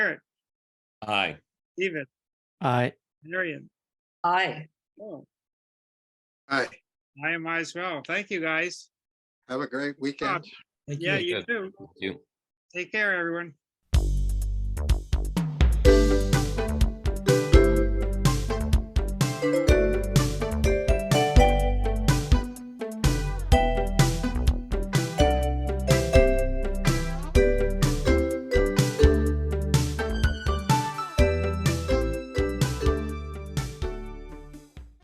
Aye. David, Aye. Marion, Aye. oh, Hi, I am as well. Thank you, guys. have a great weekend. Yeah, you Good. too. Thank you. Take care, everyone.